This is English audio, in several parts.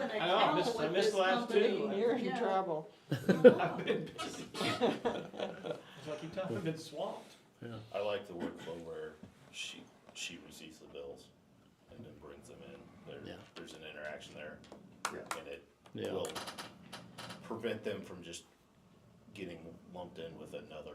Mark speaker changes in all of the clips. Speaker 1: missed, I missed the last two. I-
Speaker 2: You're in
Speaker 3: Yeah.
Speaker 2: trouble.
Speaker 3: I've
Speaker 1: I've been busy. That's what I keep telling you, I've been swamped.
Speaker 4: I like the workflow where she, she receives the bills and then brings them in. There,
Speaker 5: Yeah.
Speaker 4: there's an interaction there.
Speaker 1: Yeah.
Speaker 4: And it
Speaker 5: Yeah.
Speaker 4: will prevent them from just getting lumped in with another,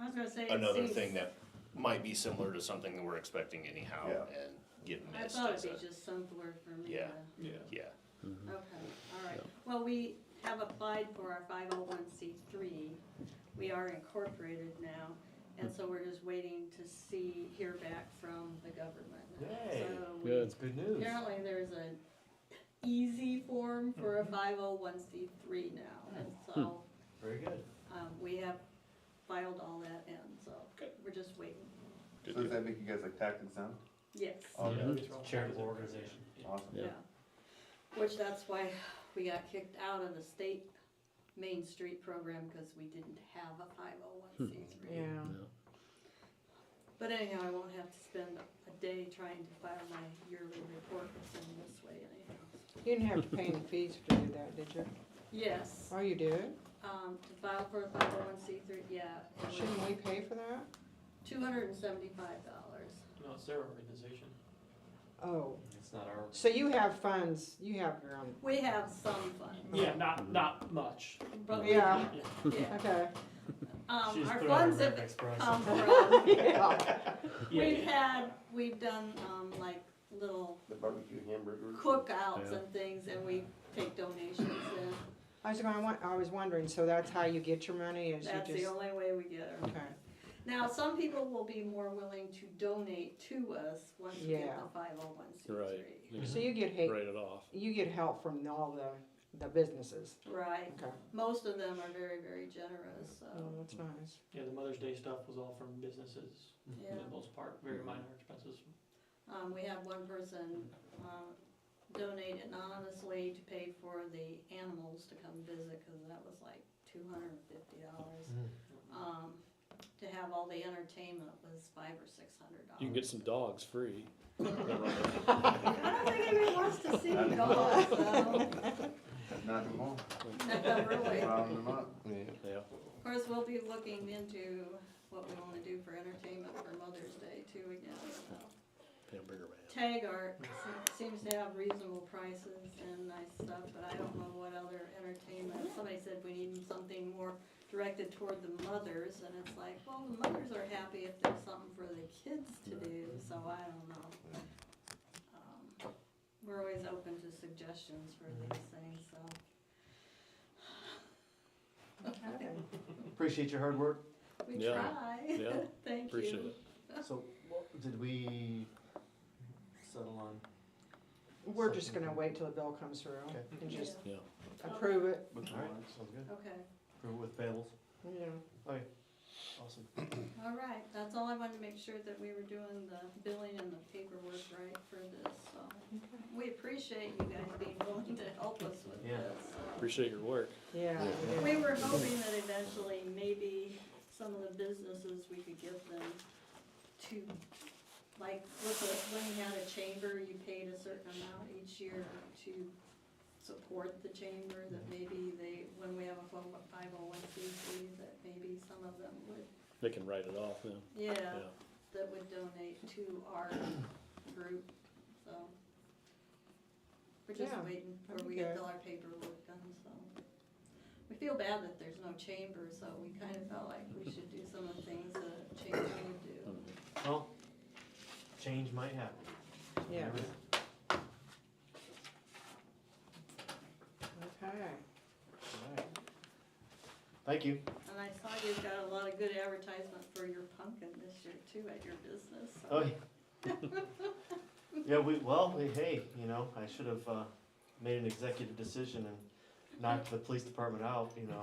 Speaker 3: I was gonna say. it
Speaker 4: another
Speaker 3: seems-
Speaker 4: thing that might be similar to something that we're expecting anyhow
Speaker 1: Yeah.
Speaker 4: and get
Speaker 3: I
Speaker 4: missed
Speaker 3: thought
Speaker 4: as
Speaker 3: it'd
Speaker 4: a,
Speaker 3: be just somewhere for me
Speaker 4: Yeah.
Speaker 3: to,
Speaker 1: Yeah.
Speaker 4: yeah.
Speaker 3: okay, all right. Well, we have applied for our five oh one C three. We are incorporated now, and so we're just waiting to see, hear back from the government.
Speaker 1: Yay.
Speaker 3: So we-
Speaker 5: Good.
Speaker 1: Good news.
Speaker 3: Apparently there's an easy form for a five oh one C three now, and so,
Speaker 1: Very good.
Speaker 3: um, we have filed all that in, so
Speaker 4: Good.
Speaker 3: we're just waiting.
Speaker 4: Good
Speaker 6: So does
Speaker 4: deal.
Speaker 6: that make you guys like tax exempt?
Speaker 3: Yes,
Speaker 1: Yeah,
Speaker 5: Mhm.
Speaker 1: it's all-
Speaker 7: Charitable organization.
Speaker 6: Awesome.
Speaker 5: Yeah.
Speaker 3: yeah. Which that's why we got kicked out of the state Main Street program, cause we didn't have a five oh one C
Speaker 2: Yeah.
Speaker 3: three. But anyhow, I won't have to spend a day trying to file my yearly report or send this way anyhow.
Speaker 2: You didn't have to pay any fees to do that, did you?
Speaker 3: Yes,
Speaker 2: Oh, you did?
Speaker 3: um, to file for a five oh one C three, yeah. it was-
Speaker 2: Shouldn't we pay for that?
Speaker 3: Two hundred and seventy-five dollars.
Speaker 7: No, it's their organization.
Speaker 2: Oh,
Speaker 7: It's not our.
Speaker 2: so you have funds, you have your own.
Speaker 3: We have some funds,
Speaker 7: Yeah, not, not much.
Speaker 3: but we, yeah.
Speaker 2: Yeah, okay.
Speaker 3: Um,
Speaker 7: She's
Speaker 3: our
Speaker 7: put on her
Speaker 3: funds have
Speaker 7: Rex Bryson.
Speaker 3: come from,
Speaker 2: Yeah.
Speaker 7: Yeah,
Speaker 3: we've
Speaker 7: yeah.
Speaker 3: had, we've done, um, like little
Speaker 6: The barbecue hamburger.
Speaker 3: cookouts
Speaker 5: Yeah.
Speaker 3: and things and we take donations and
Speaker 2: I was going, I was wondering, so that's how you get your money is
Speaker 3: that's
Speaker 2: you
Speaker 3: the
Speaker 2: just,
Speaker 3: only way we get our.
Speaker 2: okay.
Speaker 3: Now, some people will be more willing to donate to us once we get
Speaker 2: Yeah.
Speaker 3: the five oh one C three.
Speaker 2: So you get hate,
Speaker 5: Write it off.
Speaker 2: you get help from all the, the businesses.
Speaker 3: Right,
Speaker 2: Okay.
Speaker 3: most of them are very, very generous,
Speaker 2: Oh,
Speaker 3: so,
Speaker 2: that's nice.
Speaker 7: Yeah, the Mother's Day stuff was all from businesses for
Speaker 3: yeah.
Speaker 7: the most part, very minor expenses.
Speaker 3: Um, we had one person, um, donate anonymously to pay for the animals to come visit, cause that was like two hundred and fifty dollars. Um, to have all the entertainment was five or six hundred dollars.
Speaker 5: You can get some dogs free.
Speaker 3: I don't think anybody wants to see dogs, though,
Speaker 6: Not too long.
Speaker 3: No, really. Of
Speaker 6: Round them up.
Speaker 5: Yeah.
Speaker 3: course, we'll be looking into what we wanna do for entertainment for Mother's Day too again, so.
Speaker 5: Hamburger man.
Speaker 3: Tag art se- seems to have reasonable prices and nice stuff, but I don't know what other entertainment. Somebody said we need something more directed toward the mothers, and it's like, well, the mothers are happy if there's something for the kids to do, so I don't know. Um, We're always open to suggestions for these things, so.
Speaker 2: Okay.
Speaker 7: Appreciate your hard work.
Speaker 3: We
Speaker 5: Yeah.
Speaker 3: try,
Speaker 5: Yeah,
Speaker 3: thank you.
Speaker 5: appreciate it.
Speaker 7: So, did we settle on?
Speaker 2: We're just gonna wait till the bill comes through
Speaker 7: Okay.
Speaker 2: and just
Speaker 5: Yeah.
Speaker 2: approve it,
Speaker 7: sounds good.
Speaker 3: Okay.
Speaker 7: With Fables.
Speaker 2: you know.
Speaker 7: Awesome.
Speaker 3: All right, that's all I wanted to make sure that we were doing the billing and the paperwork right for this, so. We appreciate you guys being willing to help us with
Speaker 7: Yeah.
Speaker 3: this. so.
Speaker 5: Appreciate your work.
Speaker 2: Yeah. yeah.
Speaker 3: We were hoping that eventually maybe some of the businesses, we could get them to, like, with the, when you had a chamber, you paid a certain amount each year to support the chamber, that
Speaker 5: Mm-hmm.
Speaker 3: maybe they, when we have a five oh one C three, that maybe some of them would
Speaker 5: They can write it off then.
Speaker 3: yeah,
Speaker 5: Yeah.
Speaker 3: that would donate to our group, so. We're just
Speaker 2: Yeah,
Speaker 3: waiting
Speaker 2: that'd
Speaker 3: for
Speaker 2: be
Speaker 3: we get
Speaker 2: good.
Speaker 3: all our paperwork done, so. We feel bad that there's no chamber, so we kind of felt like we should do some of the things that a chamber would do.
Speaker 7: Well, change might happen.
Speaker 2: Yeah, okay.
Speaker 7: Thank you.
Speaker 3: And I saw you've got a lot of good advertisement for your pumpkin this year too at your business, so.
Speaker 7: Oh, yeah. Yeah, we, well, we- hey, you know, I should have, uh, made an executive decision and knocked the police department out, you know.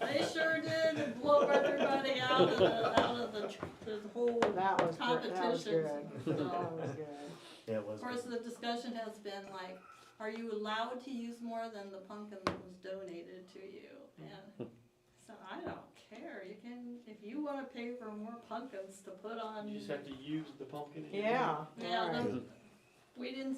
Speaker 3: They sure did blow everybody out of the, out of the, the whole,
Speaker 2: That was, good. that was good.
Speaker 3: Competitions.
Speaker 2: That was good.
Speaker 7: Yeah, it was.
Speaker 3: Of course, the discussion has been like, are you allowed to use more than the pumpkin that was donated to you? And so I don't care, you can, if you wanna pay for more pumpkins to put on.
Speaker 7: You just have to use the pumpkin. that you
Speaker 2: Yeah.
Speaker 3: Um, Yeah,
Speaker 2: alright.
Speaker 3: the- we didn't